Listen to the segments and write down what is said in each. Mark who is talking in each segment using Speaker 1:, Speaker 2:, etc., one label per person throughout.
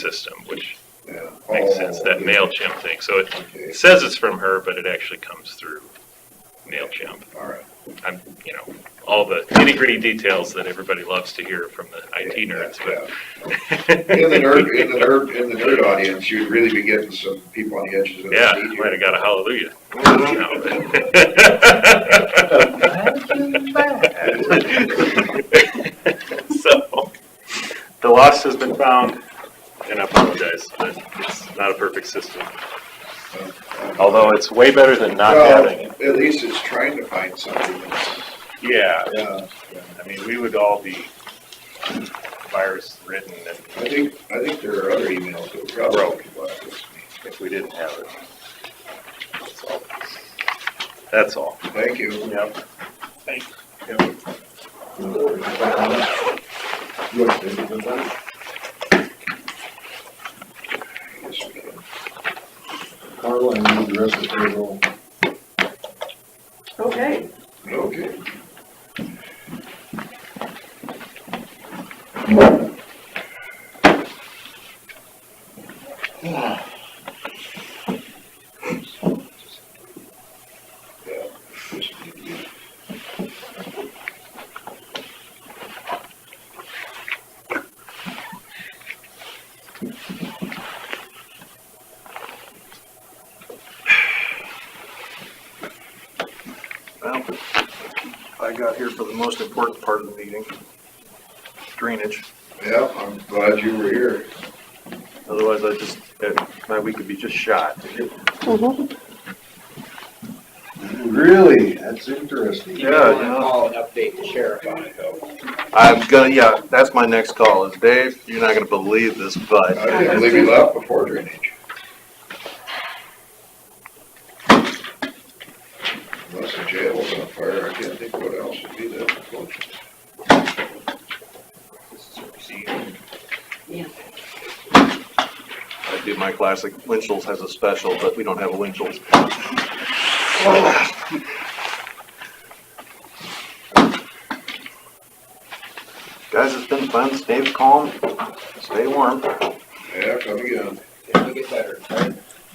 Speaker 1: system, which
Speaker 2: Yeah.
Speaker 1: makes
Speaker 2: Oh,
Speaker 1: sense, that
Speaker 2: okay,
Speaker 1: MailChimp thing. So it
Speaker 2: Okay,
Speaker 1: says it's from her, but it actually comes through MailChimp.
Speaker 2: all right.
Speaker 1: I'm, you know, all the nitty gritty details that everybody loves to hear from the IT
Speaker 2: Yeah,
Speaker 1: nerds,
Speaker 2: yeah.
Speaker 1: but.
Speaker 2: In the nerd, in the nerd, in the nerd audience, you'd really be getting some people on the edges of
Speaker 1: Yeah,
Speaker 2: the seat
Speaker 1: might
Speaker 2: here.
Speaker 1: have got a hallelujah. So, the loss has been found, and I apologize, but it's not a perfect system. Although it's way better than not
Speaker 2: Well,
Speaker 1: having it.
Speaker 2: at least it's trying to find something that's, uh,
Speaker 3: Yeah,
Speaker 2: yeah,
Speaker 3: I mean, we would all be virus ridden
Speaker 2: I think, I think there are other emails that probably could block this.
Speaker 3: if we didn't have it. That's all. That's all.
Speaker 2: Thank you.
Speaker 3: Yep.
Speaker 2: Yes, we can.
Speaker 4: Carla, I need the rest of the payroll.
Speaker 5: Okay,
Speaker 2: Okay. Yeah, this would be good.
Speaker 6: Well, I got here for the most important part of the meeting, drainage.
Speaker 2: Yeah, I'm glad you were here.
Speaker 6: Otherwise, I just, my week would be just shot.
Speaker 4: Really? That's interesting.
Speaker 6: Yeah, you know.
Speaker 7: Call and update the sheriff on it though.
Speaker 6: I'm gonna, yeah, that's my next call is Dave, you're not gonna believe this, but
Speaker 2: I didn't believe you left before drainage. Unless the jail was on fire, I can't think what else would be that close.
Speaker 6: I do my classic, Winchell's has a special, but we don't have a Winchell's. Guys, it's been fun. Stay calm, stay warm.
Speaker 2: Yeah, come again.
Speaker 7: It'll get better.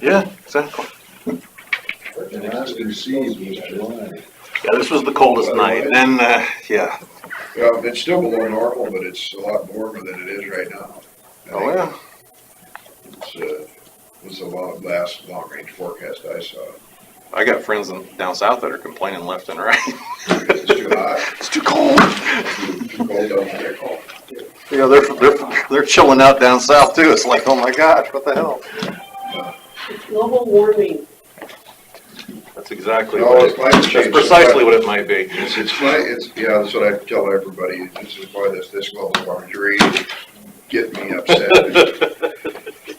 Speaker 6: Yeah, exactly.
Speaker 4: The last we was July.
Speaker 6: Yeah, this was the coldest night, and then, uh, yeah.
Speaker 2: Yeah, it's still below normal, but it's a lot warmer than it is right now. I think
Speaker 6: Oh, yeah.
Speaker 2: It's, uh, was the lo- last long range forecast I saw.
Speaker 6: I got friends in, down south that are complaining left and right.
Speaker 2: It's too hot,
Speaker 6: It's too cold.
Speaker 2: too too cold down there.
Speaker 6: You know, they're, they're, they're chilling out down south too. It's like, oh my gosh, what the hell?
Speaker 5: it's global warming.
Speaker 6: That's exactly
Speaker 2: No,
Speaker 6: what
Speaker 2: it's
Speaker 6: it-
Speaker 2: climate
Speaker 6: that's
Speaker 2: change.
Speaker 6: precisely what it might be.
Speaker 2: It's, it's my, it's, yeah, that's what I tell everybody, this is why this, this global warming is really getting me upset.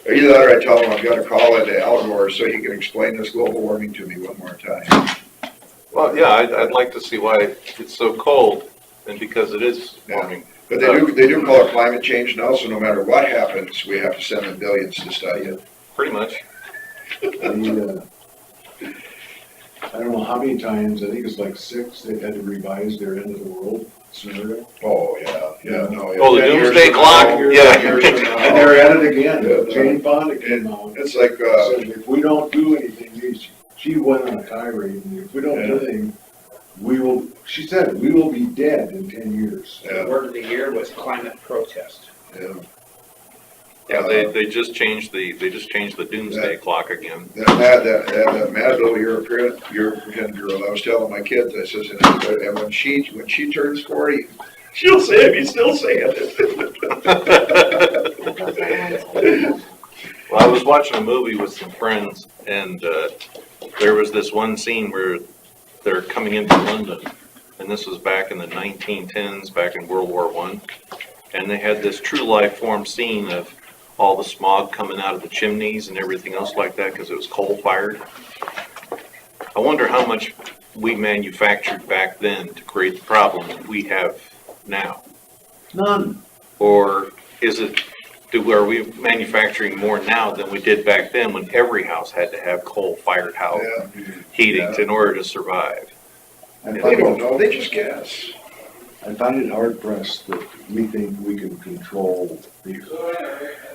Speaker 2: Either that or I tell them I've got to call into Almore so he can explain this global warming to me one more time.
Speaker 6: Well, yeah, I'd, I'd like to see why it's so cold and because it is warming.
Speaker 2: But they do, they do call it climate change now, so no matter what happens, we have to send them billions to study it.
Speaker 6: Pretty much.
Speaker 4: The, uh, I don't know how many times, I think it's like six, they've had to revise their end of the world scenario.
Speaker 2: Oh, yeah, yeah, no. yeah.
Speaker 6: Oh, the
Speaker 2: Ten years
Speaker 6: doomsday
Speaker 2: from
Speaker 6: clock?
Speaker 2: now,
Speaker 6: Yeah.
Speaker 2: ten years from now.
Speaker 4: And they're at it again. Jane Fonda came out.
Speaker 2: It's like, uh,
Speaker 4: Said, if we don't do anything, she- she went on a tirade, and if we don't do anything, we will, she said, we will be dead in ten years.
Speaker 7: The
Speaker 2: yeah,
Speaker 7: word of the year was climate protest.
Speaker 2: yeah.
Speaker 6: Yeah, they, they just changed the, they just changed the doomsday clock again.
Speaker 2: That mad, that, that, that mad little European, European girl, I was telling my kids, I says, and, and when she, when she turns forty, she'll say it, he's still saying it.
Speaker 6: Well, I was watching a movie with some friends and, uh, there was this one scene where they're coming into London. And this was back in the nineteen tens, back in World War One. And they had this true life form scene of all the smog coming out of the chimneys and everything else like that because it was coal fired. I wonder how much we manufactured back then to create the problem that we have now.
Speaker 4: None.
Speaker 6: Or is it, do, are we manufacturing more now than we did back then when every house had to have coal-fired house
Speaker 2: Yeah.
Speaker 6: heating in order to survive?
Speaker 4: I
Speaker 2: They
Speaker 4: find
Speaker 2: don't
Speaker 4: it,
Speaker 2: know, they just guess.
Speaker 4: I find it hard pressed that we think we can control the